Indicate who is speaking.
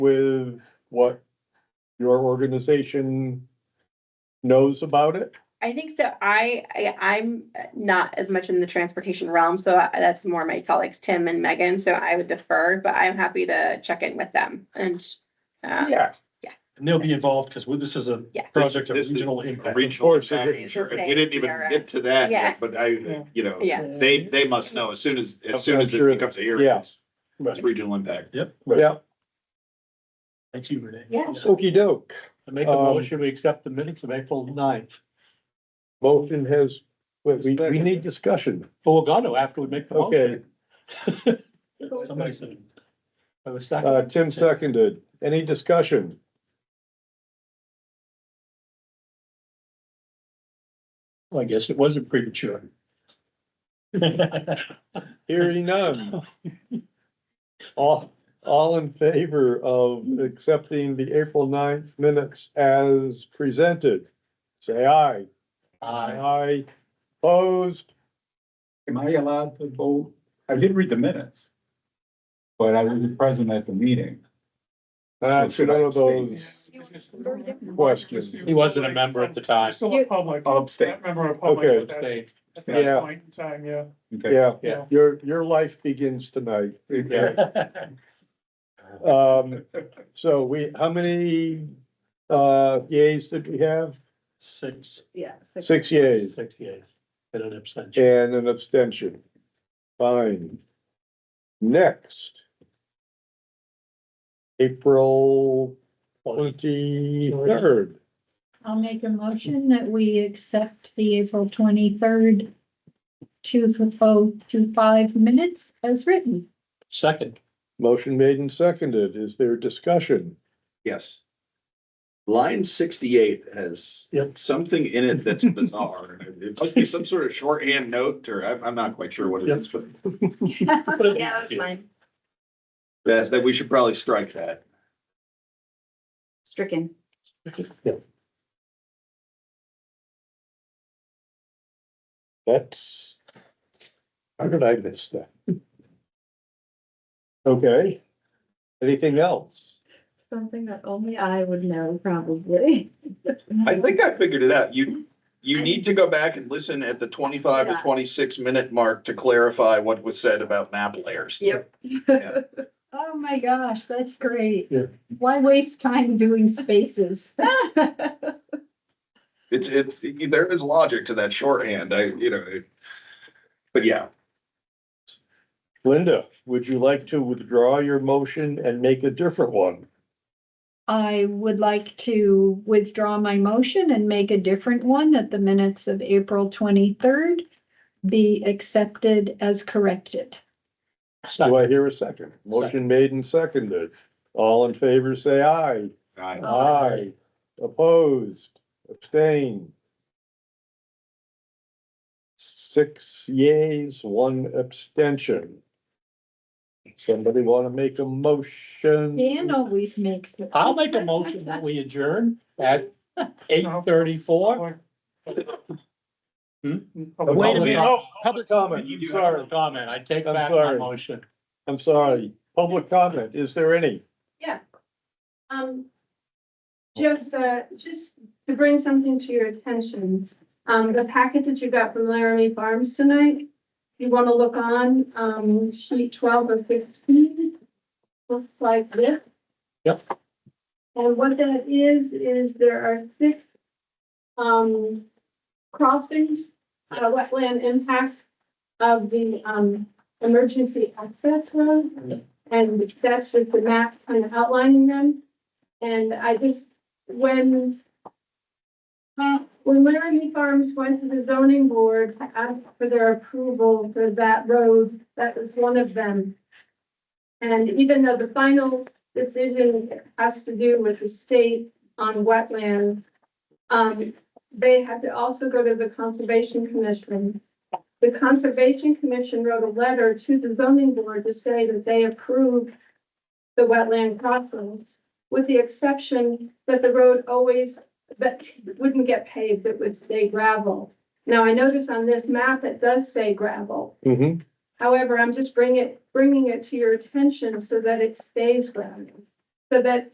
Speaker 1: with what your organization knows about it?
Speaker 2: I think so. I, I, I'm not as much in the transportation realm, so I- that's more my colleagues, Tim and Megan, so I would defer, but I'm happy to check in with them and. uh,
Speaker 1: Yeah.
Speaker 3: And they'll be involved because this is a
Speaker 2: Yeah.
Speaker 3: project of
Speaker 4: This is
Speaker 3: regional impact.
Speaker 1: Of course, it is.
Speaker 4: Sure, and we didn't even get to that
Speaker 2: Yeah.
Speaker 4: yet, but I, you know,
Speaker 2: Yeah.
Speaker 4: they, they must know as soon as,
Speaker 1: I'm-
Speaker 4: as soon
Speaker 1: I'm
Speaker 4: as it
Speaker 1: sure-
Speaker 4: becomes a hearing.
Speaker 1: yeah.
Speaker 4: It's it's regional impact.
Speaker 1: Yeah,
Speaker 3: Thank you, Renee.
Speaker 2: Yeah.
Speaker 1: okey doke.
Speaker 3: I make a
Speaker 1: Um,
Speaker 3: motion, we accept the minutes of April ninth.
Speaker 1: Motion has, wait, we, we need discussion.
Speaker 3: But we'll go to after we make the
Speaker 1: Okay,
Speaker 3: motion. Somebody said. I was
Speaker 1: uh,
Speaker 3: second.
Speaker 1: Tim seconded. Any discussion?
Speaker 3: I guess it wasn't premature. Uh,
Speaker 1: Hearing none. All, all in favor of accepting the April 9th minutes as presented? Say aye.
Speaker 3: Aye.
Speaker 1: Aye. Opposed?
Speaker 5: Am I allowed to vote? I did read the minutes. But I wasn't present at the meeting.
Speaker 1: That's
Speaker 5: should I
Speaker 1: one of
Speaker 5: abstain?
Speaker 1: those questions.
Speaker 3: He wasn't a member at the time.
Speaker 6: Still a public,
Speaker 5: I'll
Speaker 6: I
Speaker 5: abstain.
Speaker 6: remember a public at that,
Speaker 3: Stay.
Speaker 6: at
Speaker 1: Yeah.
Speaker 6: that point in time, yeah.
Speaker 5: Okay.
Speaker 1: Yeah,
Speaker 3: Yeah.
Speaker 1: your, your life begins tonight.
Speaker 5: Okay.
Speaker 1: Um, so we, how many, uh, yays did we have?
Speaker 3: Six,
Speaker 7: Yeah.
Speaker 1: Six yays
Speaker 3: six yeas, and an abstention.
Speaker 1: and an abstention. Fine. Next. April twenty-third.
Speaker 7: I'll make a motion that we accept the April twenty-third, two oh two five minutes as written.
Speaker 3: Second.
Speaker 1: Motion made and seconded. Is there discussion?
Speaker 4: Yes. Line sixty-eight has
Speaker 3: Yep.
Speaker 4: something in it that's bizarre. It must be some sort of shorthand note or I'm, I'm not quite sure what it is, but
Speaker 3: mine.
Speaker 4: that's, that we should probably strike that.
Speaker 8: stricken.
Speaker 1: That's. How did I miss that? Okay. Anything else?
Speaker 8: Something that only I would know, probably.
Speaker 4: I think I figured it out. You, you need to go back and listen at the twenty-five to twenty-six minute mark to clarify what was said about map layers.
Speaker 8: Yep.
Speaker 4: Yeah.
Speaker 7: Oh my gosh, that's great.
Speaker 3: Yeah.
Speaker 7: Why waste time doing spaces?
Speaker 4: It's, it's, there is logic to that shorthand. I, you know. it- But yeah,
Speaker 1: Linda, would you like to withdraw your motion and make a different one?
Speaker 7: I would like to withdraw my motion and make a different one that the minutes of April twenty-third be accepted as corrected.
Speaker 1: Do I hear a second? Motion made and seconded. All in favor, say aye.
Speaker 4: I,
Speaker 1: Aye. Opposed, abstain. Six yays, one abstention. Somebody want to make a motion?
Speaker 7: Dan always makes it.
Speaker 3: I'll make a motion that we adjourn at eight thirty-four.
Speaker 6: Public-
Speaker 3: Hmm?
Speaker 6: Public-
Speaker 3: Wait a minute.
Speaker 1: Oh, Public comment,
Speaker 3: You
Speaker 1: I'm
Speaker 3: do have a
Speaker 1: sorry,
Speaker 3: comment. I take
Speaker 1: I'm
Speaker 3: back my
Speaker 1: sorry.
Speaker 3: motion.
Speaker 1: I'm sorry. Public comment, is there any?
Speaker 9: Um, just, uh, just to bring something to your attention, um, the packet that you got from Laramie Farms tonight, you want to look on, um, sheet twelve or fifteen, looks like this.
Speaker 3: Yep.
Speaker 9: And what that is, is there are six, um, crossings, uh, wetland impact of the, um, emergency access road. And that's just the map kind of outlining them. And I just, when uh, when Laramie Farms went to the zoning board to ask for their approval for that road, that was one of them. And even though the final decision has to do with the state on wetlands, um, they had to also go to the Conservation Commission. The Conservation Commission wrote a letter to the zoning board to say that they approve the wetland crossings with the exception that the road always, that wouldn't get paved, it would stay gravel. Now, I notice on this map, it does say gravel.
Speaker 1: Mm-hmm.
Speaker 9: However, I'm just bringing it, bringing it to your attention so that it stays gravel. So that